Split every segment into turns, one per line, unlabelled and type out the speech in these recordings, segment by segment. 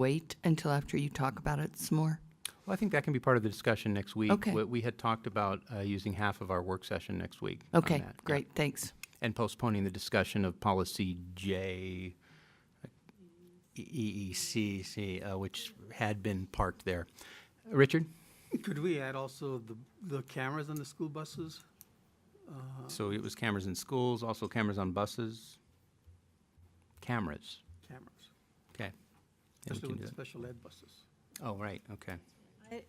wait until after you talk about it some more?
Well, I think that can be part of the discussion next week.
Okay.
We- We had talked about uh, using half of our work session next week. on
Okay,
that, yeah.
great, thanks.
And postponing the discussion of policy J, E, EECC, uh, which had been parked there. Richard?
Could we add also the, the cameras on the school buses?
So it was cameras in schools, also cameras on buses? Cameras,
Cameras,
okay. Yeah, we
especially
can
with
do that.
the special ed buses.
Oh, right, okay.
I-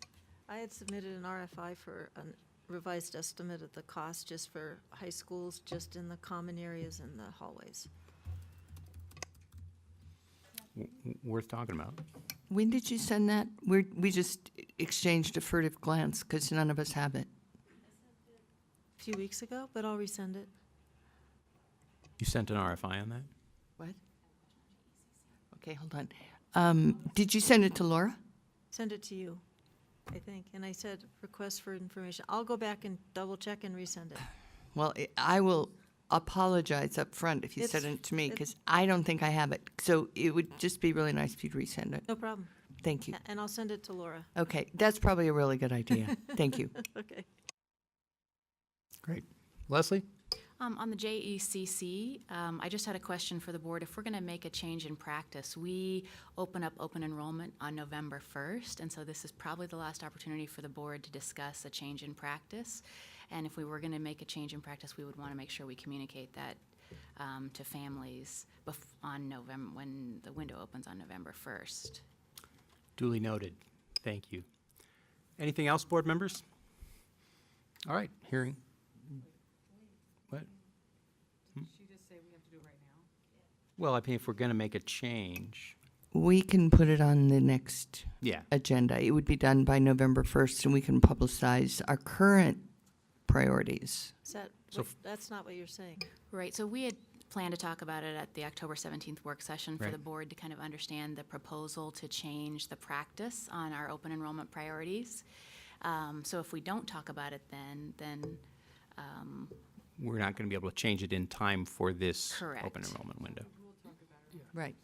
I had submitted an RFI for a revised estimate of the cost just for high schools, just in the common areas and the hallways.
W- Worth talking about.
When did you send that? We're, we just exchanged a furtive glance because none of us have it.
A few weeks ago, but I'll resend it.
You sent an RFI on that?
What? Okay, hold on. Um, did you send it to Laura?
Send it to you, I think. And I said, request for information. I'll go back and double check and resend it.
Well, I- I will apologize up front if you sent
It's-
it to me
it-
because I don't think I have it. So it would just be really nice if you'd resend it.
No problem.
Thank you.
A- And I'll send it to Laura.
Okay, that's probably a really good idea. Thank you.
Okay.
Great. Leslie?
Um, on the JECC, um, I just had a question for the board. If we're going to make a change in practice, we open up open enrollment on November 1st, and so this is probably the last opportunity for the board to discuss a change in practice. And if we were going to make a change in practice, we would want to make sure we communicate that um, to families bef- on November when the window opens on November 1st.
Duly noted. Thank you. Anything else, board members? All right, hearing. What? Well, I mean, if we're going to make a change,
We can put it on the next
yeah,
agenda. It would be done by November 1st, and we can publicize our current priorities.
Is that,
So
what- that's not what you're saying.
Right, so we had planned to talk about it at the October 17th work session for the
Right.
board to kind of understand the proposal to change the practice on our open enrollment priorities. Um, So if we don't talk about it then, then, um,
we're not going to be able to change it in time for this open
Correct.
enrollment window.
Right.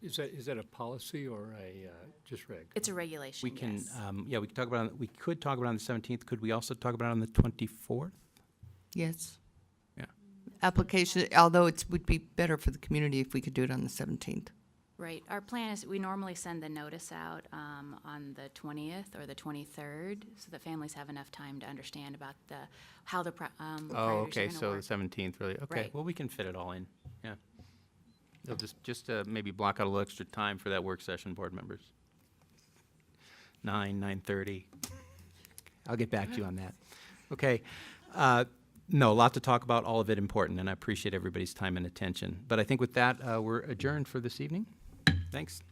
Is that, is that a policy or a, uh, just reg?
it's a regulation,
We can,
yes.
um, yeah, we could talk about, it- we could talk about it on the 17th. Could we also talk about it on the 24th?
Yes.
Yeah.
Application, although it would be better for the community if we could do it on the 17th.
Right, our plan is, we normally send the notice out um, on the 20th or the 23rd, so that families have enough time to understand about the, how the pri- um,
Oh,
priorities are
okay,
going
so the
to work.
17th, really, okay.
Right.
Well, we can fit it all in, yeah. They'll just, just uh, maybe block out a little extra time for that work session, board members. Nine, 9:30. I'll get back to you on that. Okay. uh, No, a lot to talk about, all of it important, and I appreciate everybody's time and attention. But I think with that, uh, we're adjourned for this evening. Thanks.